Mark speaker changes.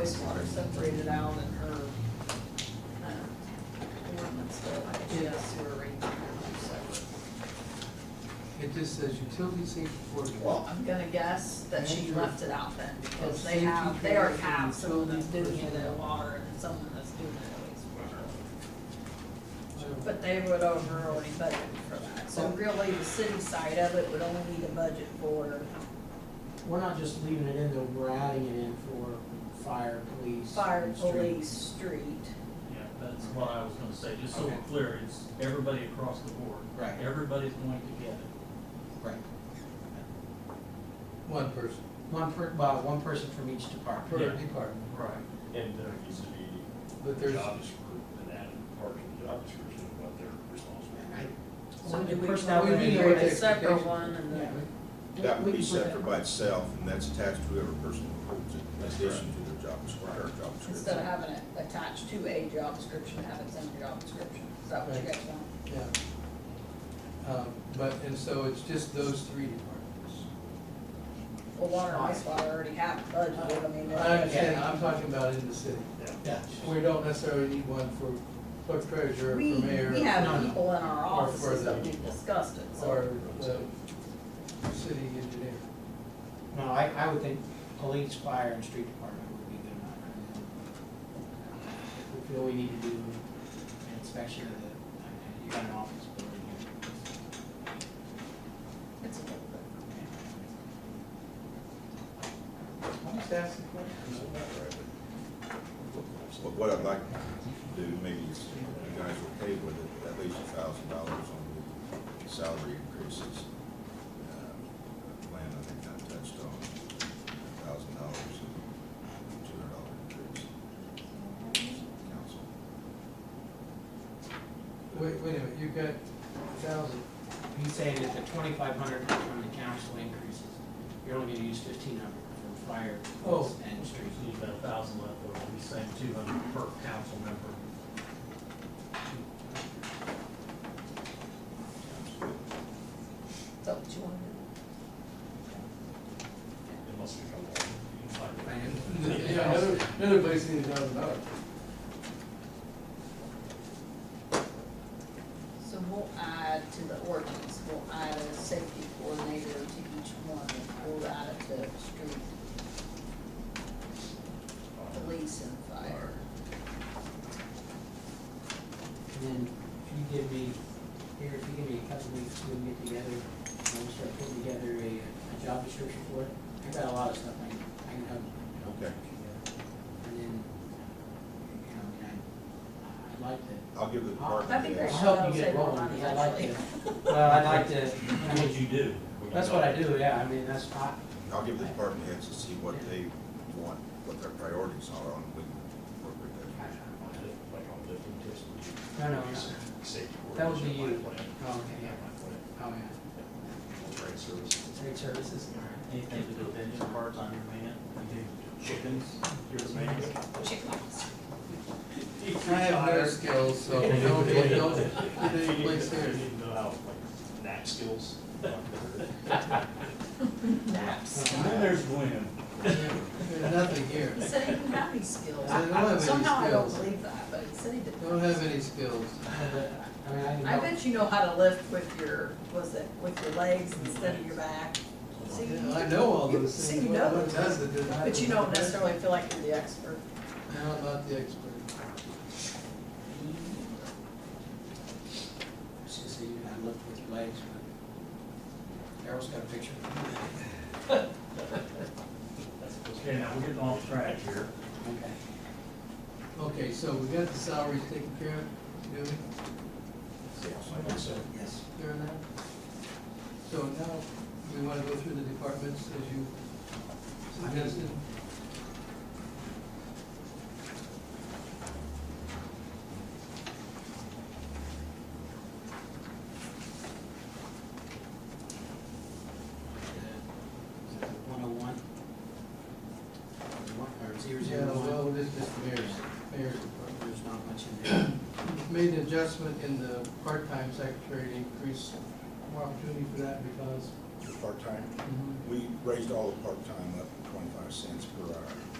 Speaker 1: wastewater separated out in her, uh, ordinance, but I think she has sewer rate in her separate.
Speaker 2: It just says utility safety coordinator.
Speaker 1: Well, I'm gonna guess that she
Speaker 2: Andrew.
Speaker 1: left it out then, because
Speaker 2: Oh,
Speaker 1: they have, they already
Speaker 2: safety
Speaker 1: have
Speaker 2: training,
Speaker 1: someone that's doing
Speaker 2: utility
Speaker 1: it at
Speaker 2: personnel.
Speaker 1: water and someone that's doing it at wastewater.
Speaker 2: So,
Speaker 1: But they would over already budget for that, so really the city side of it would only need a budget for,
Speaker 3: We're not just leaving it in, though, we're adding it in for fire, police.
Speaker 1: fire,
Speaker 3: and street.
Speaker 1: police, street.
Speaker 4: Yeah, that's what I was gonna say, just so we're
Speaker 3: Okay.
Speaker 4: clear, it's everybody across the board.
Speaker 3: Right.
Speaker 4: Everybody's going to get it.
Speaker 3: Right.
Speaker 2: One person
Speaker 3: One per, well, one person from each department.
Speaker 2: per
Speaker 4: Yeah.
Speaker 2: department.
Speaker 4: Right.
Speaker 5: And there needs to be
Speaker 2: But
Speaker 5: a
Speaker 2: there's,
Speaker 5: job description, an added part of the job description of what they're responsible for.
Speaker 1: So do we
Speaker 3: Personnel
Speaker 2: we
Speaker 1: probably
Speaker 2: need
Speaker 3: committee.
Speaker 2: to
Speaker 1: create a
Speaker 2: take
Speaker 1: separate
Speaker 2: expectations.
Speaker 1: one and
Speaker 3: Yeah.
Speaker 1: then,
Speaker 6: That
Speaker 3: We
Speaker 6: would be
Speaker 3: can put that-
Speaker 6: separate by itself, and that's attached to whoever person approves it, in addition to their job description, our job
Speaker 1: instead of
Speaker 6: description.
Speaker 1: having it attached to a job description, have its own job description, is that what you
Speaker 2: Right.
Speaker 1: guys want?
Speaker 2: yeah. Um, but, and so it's just those three departments.
Speaker 1: Well, water and wastewater already have a budget, I mean.
Speaker 2: I
Speaker 1: they're-
Speaker 2: understand, I'm talking about in the city.
Speaker 3: Yeah.
Speaker 2: We don't necessarily need one for clerk treasurer, for
Speaker 1: We,
Speaker 2: mayor.
Speaker 1: we
Speaker 3: no,
Speaker 1: have
Speaker 3: no.
Speaker 1: people in our
Speaker 2: Or for
Speaker 1: offices that
Speaker 2: the-
Speaker 1: we've discussed it,
Speaker 2: Or
Speaker 1: so,
Speaker 2: the city engineer.
Speaker 3: No, I, I would think police, fire, and street department would be good enough. If we feel we need to do an inspection of the, I mean, you got an office building here.
Speaker 1: it's a little bit.
Speaker 2: I'm just asking a question.
Speaker 6: But what I'd like to do, maybe if you guys are okay with it, at least a thousand dollars on the salary increases. Uh, Lynn, I think I touched on a thousand dollars and two hundred dollar increase. Council,
Speaker 2: Wait, wait a minute, you've got a thousand.
Speaker 3: He's saying that the twenty-five hundred from the council increases, you're only gonna use fifteen hundred for fire, police, and street.
Speaker 4: There's usually about a thousand left over, we send two hundred per council member.
Speaker 6: council.
Speaker 1: Is that what you want to do?
Speaker 5: It must be come along. You can find it.
Speaker 2: Yeah, another, another place needs a thousand dollars.
Speaker 1: So we'll add to the ordinance, we'll add a safety coordinator to each one, we'll add it to street, police and fire.
Speaker 3: And then if you give me, here, if you give me a couple weeks, we can get together, and we'll start putting together a, a job description for it. I've got a lot of stuff I can, I can help. help
Speaker 6: Okay.
Speaker 3: put together. And then, you know, I mean, I, I'd like to,
Speaker 6: I'll give the department.
Speaker 1: That'd be
Speaker 6: heads-
Speaker 1: great.
Speaker 3: I'll help you
Speaker 1: That'll save
Speaker 3: get
Speaker 1: more
Speaker 3: rolling,
Speaker 1: money,
Speaker 3: because I like to,
Speaker 1: actually.
Speaker 3: well, I'd like to, I
Speaker 4: What'd
Speaker 3: mean,
Speaker 4: you do?
Speaker 3: that's what I do, yeah, I mean, that's, I,
Speaker 6: I'll give the department heads to see what they want, what their priorities are on when appropriate.
Speaker 5: Like on lifting tips.
Speaker 3: No, no, no.
Speaker 5: Safety.
Speaker 3: That would be you.
Speaker 5: coordinator, my plan.
Speaker 3: Oh, okay, yeah.
Speaker 5: My plan.
Speaker 3: oh, yeah,
Speaker 5: Great service.
Speaker 3: trade services,
Speaker 4: Anything to do with engine parts on your man, you do chickens, your man.
Speaker 1: Chickens.
Speaker 2: I have no skills, so don't, don't, don't, get
Speaker 5: You
Speaker 2: any
Speaker 5: need
Speaker 2: place
Speaker 5: to-
Speaker 2: there.
Speaker 5: you need to know how, like, knack skills.
Speaker 1: Naps.
Speaker 4: And then there's Gwen.
Speaker 2: There's nothing here.
Speaker 1: He said he didn't have any skills.
Speaker 2: I don't have any
Speaker 1: Somehow I don't
Speaker 2: skills.
Speaker 1: believe that, but he said he didn't.
Speaker 2: Don't have any skills.
Speaker 3: I mean, I can
Speaker 1: I
Speaker 3: help.
Speaker 1: bet you know how to lift with your, was it, with your legs instead of your back. See,
Speaker 2: Yeah, I know all those
Speaker 1: See,
Speaker 2: things.
Speaker 1: you
Speaker 2: What-
Speaker 1: know
Speaker 2: what
Speaker 1: those.
Speaker 2: does it that I
Speaker 1: But you don't
Speaker 2: know?
Speaker 1: necessarily feel like you're the expert.
Speaker 2: No, I'm not the expert.
Speaker 3: It's just that you gotta look with your legs, but Daryl's got a picture.
Speaker 4: Okay, now we're getting off track here.
Speaker 3: Okay.
Speaker 2: Okay, so we got the salaries taken care of, do we,
Speaker 3: Yes.
Speaker 2: during that? So now, we wanna go through the departments as you suggested?
Speaker 3: One oh one. Or zero
Speaker 2: Yeah,
Speaker 3: zero
Speaker 2: well,
Speaker 3: one.
Speaker 2: this is just mayor's, mayor's department.
Speaker 3: There's not much in there.
Speaker 2: Made an adjustment in the part-time secretary to increase more opportunity for that because
Speaker 6: The part-time, we raised all the part-time up to twenty-five cents per hour.